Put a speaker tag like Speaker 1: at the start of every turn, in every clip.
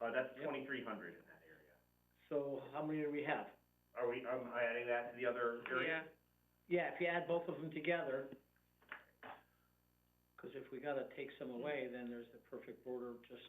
Speaker 1: Uh, that's
Speaker 2: Yep.
Speaker 1: twenty-three hundred in that area.
Speaker 2: So how many do we have?
Speaker 1: Are we, um, am I adding that to the other area?
Speaker 2: Yeah, if you add both of them together, cause if we gotta take some away, then there's the perfect border, just.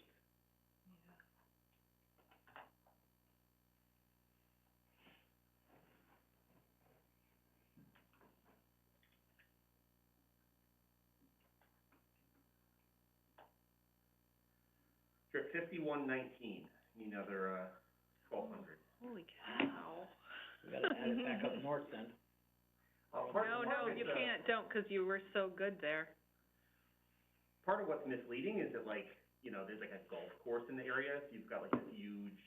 Speaker 1: You're at fifty-one nineteen, need another, uh, twelve hundred.
Speaker 3: Holy cow.
Speaker 2: We gotta add it back up north then.
Speaker 1: Uh, part,
Speaker 3: No,
Speaker 1: part
Speaker 3: no,
Speaker 1: of
Speaker 3: you
Speaker 1: it's, uh,
Speaker 3: can't, don't, 'cause you were so good there.
Speaker 1: part of what's misleading is that like, you know, there's like a golf course in the area, so you've got like this huge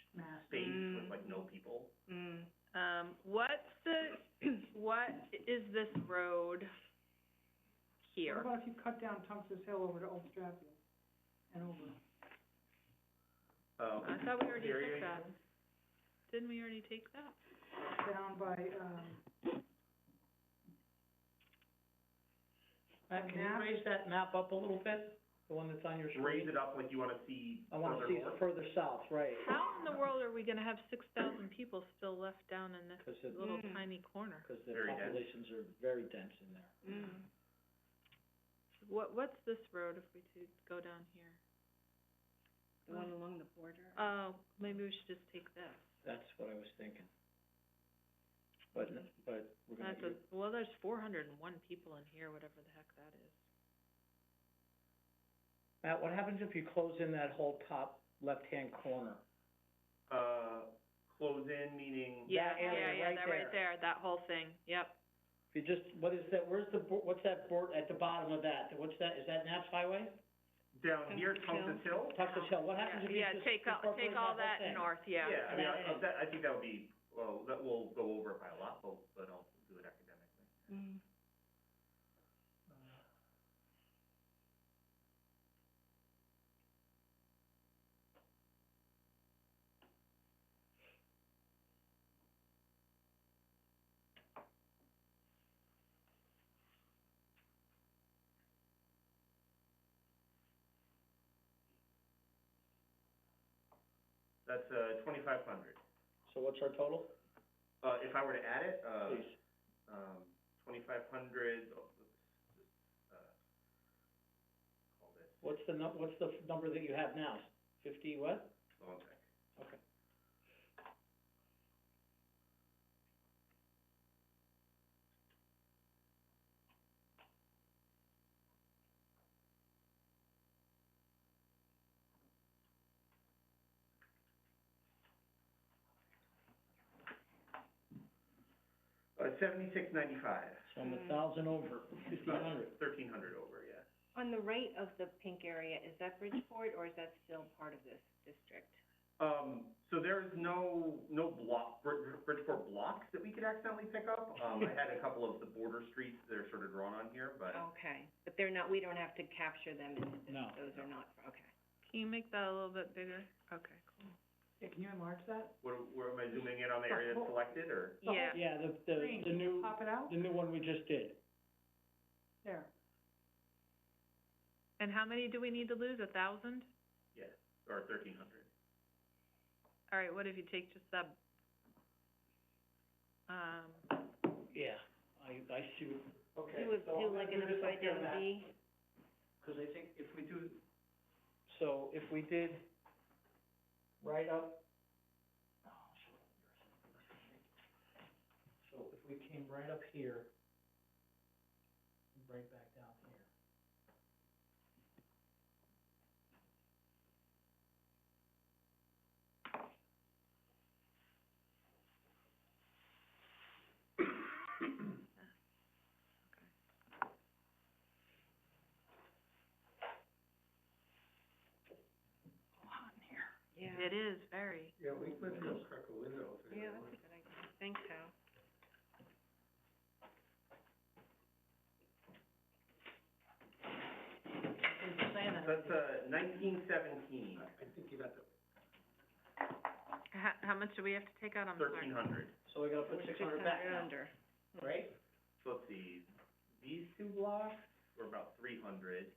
Speaker 1: space with
Speaker 3: Mm.
Speaker 1: like no people.
Speaker 3: Mm. Um, what's the, what is this road here?
Speaker 4: What about if you cut down Tungus Hill over to Old Stratfield and over?
Speaker 1: Um,
Speaker 3: I thought we already
Speaker 1: the area
Speaker 3: took that. Didn't we already take that?
Speaker 4: down by, um,
Speaker 2: Matt, can you raise that map up a little bit, the one that's on your
Speaker 1: you Raise
Speaker 2: screen?
Speaker 1: it up like you wanna see
Speaker 2: I wanna
Speaker 1: further
Speaker 2: see
Speaker 1: north.
Speaker 2: further south, right,
Speaker 3: How in the world are we gonna have six thousand people still left down in this
Speaker 2: cause it,
Speaker 3: little
Speaker 4: Mm.
Speaker 3: tiny corner?
Speaker 2: cause the
Speaker 1: Very dense.
Speaker 2: populations are very dense in there.
Speaker 3: Mm. What, what's this road if we do go down here? The one
Speaker 4: along the border.
Speaker 3: Oh, maybe we should just take this.
Speaker 2: That's what I was thinking. But, but we're gonna,
Speaker 3: That's a, well, there's four hundred and one people in here, whatever the heck that is.
Speaker 2: Matt, what happens if you close in that whole top left-hand corner?
Speaker 1: Uh, close in, meaning,
Speaker 3: Yeah,
Speaker 2: That
Speaker 3: yeah,
Speaker 2: area
Speaker 3: yeah,
Speaker 2: right
Speaker 3: that right there, that whole thing, yep.
Speaker 2: If you just, what is that, where's the, bo- what's that board, at the bottom of that, what's that, is that Naps Highway?
Speaker 1: down near Tungus Hill?
Speaker 2: Tucker's Hill, what happens if you
Speaker 3: Yeah,
Speaker 2: just
Speaker 3: take all,
Speaker 2: incorporate
Speaker 3: take all
Speaker 2: whole
Speaker 3: that
Speaker 2: thing?
Speaker 3: north, yeah.
Speaker 1: Yeah, I mean, I, I-
Speaker 2: Yeah.
Speaker 1: that, I think that would be, well, that will go over it by a lot, but, but I'll do it academically. That's, uh, twenty-five hundred.
Speaker 2: So what's our total,
Speaker 1: Uh, if I were to add it, uh,
Speaker 2: please?
Speaker 1: um, twenty-five hundred, oh, uh, call this,
Speaker 2: What's the nu- what's the f- number that you have now? Fifty what?
Speaker 1: hold on a sec.
Speaker 2: Okay.
Speaker 1: Uh, seventy-six ninety-five.
Speaker 2: So I'm a thousand over, fifteen hundred.
Speaker 1: Thirteen hundred over, yeah.
Speaker 5: On the right of the pink area, is that Bridgeport or is that still part of this district?
Speaker 1: Um, so there's no, no block, Brid- Bridgeport blocks that we could accidentally pick up. Um, I had a couple of the border streets that are sort of drawn on here, but
Speaker 3: Oh.
Speaker 5: Okay, but they're not, we don't have to capture them into this,
Speaker 2: No.
Speaker 5: those are not, okay.
Speaker 3: Can you make that a little bit bigger? Okay,
Speaker 4: Yeah, can you enlarge that?
Speaker 1: what, where am I zooming in on the area that's selected, or?
Speaker 3: cool. Yeah,
Speaker 2: Yeah, the, the,
Speaker 4: Green.
Speaker 2: the new,
Speaker 4: Pop it out?
Speaker 2: the new one we just did.
Speaker 4: There.
Speaker 3: and how many do we need to lose, a thousand?
Speaker 1: Yes, or thirteen hundred.
Speaker 3: All right, what if you take just that, um,
Speaker 2: Yeah, I, I see. Okay,
Speaker 5: Do a, do like an upside down V?
Speaker 2: Cause I think if we do. So if we did right up. oh, shit. So if we came right up here, and right back down here.
Speaker 5: Yeah.
Speaker 3: it is very,
Speaker 2: Yeah, we could go crack a window
Speaker 5: Yeah, that's a good idea, I think so.
Speaker 1: That's, uh, nineteen seventeen,
Speaker 2: I think you got the.
Speaker 3: how, how much do we have to take out, I'm sorry?
Speaker 1: thirteen hundred.
Speaker 2: So we gotta put six hundred back now,
Speaker 5: under.
Speaker 2: right?
Speaker 1: So let's see, these two blocks were about three hundred.